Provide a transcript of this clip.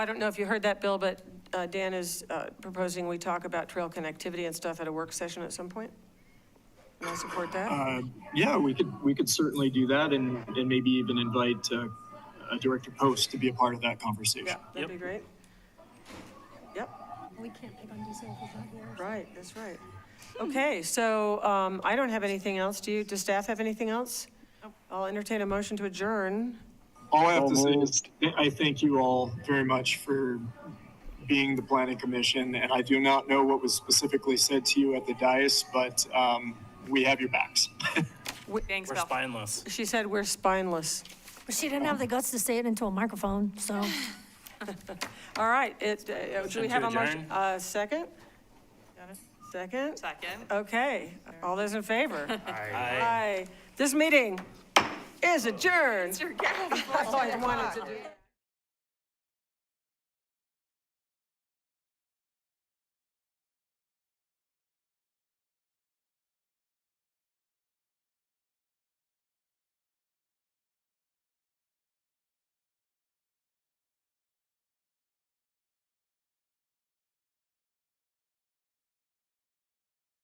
I don't know if you heard that, Bill, but uh, Dan is uh, proposing we talk about trail connectivity and stuff at a work session at some point. And I support that. Uh, yeah, we could we could certainly do that, and and maybe even invite uh, uh, Director Post to be a part of that conversation. Yeah, that'd be great. Yep, We can't pick on Diesel if he's not here. right, that's right. Okay, so um, I don't have anything else. Do you, does staff have anything else? I'll entertain a motion to adjourn. All I have to say is th- I thank you all very much for being the planning commission, and I do not know what was specifically said to you at the dais, but um, we have your backs. Thanks, We're Bill. spineless. She said we're spineless. But she didn't have the guts to say it into a microphone, so. All right, it, uh, do we Motion have to a motion? adjourn. Uh, Second? Second? Second. Okay, all those in favor? Aye. Aye. This meeting is adjourned. You're getting- That's all I wanted to do.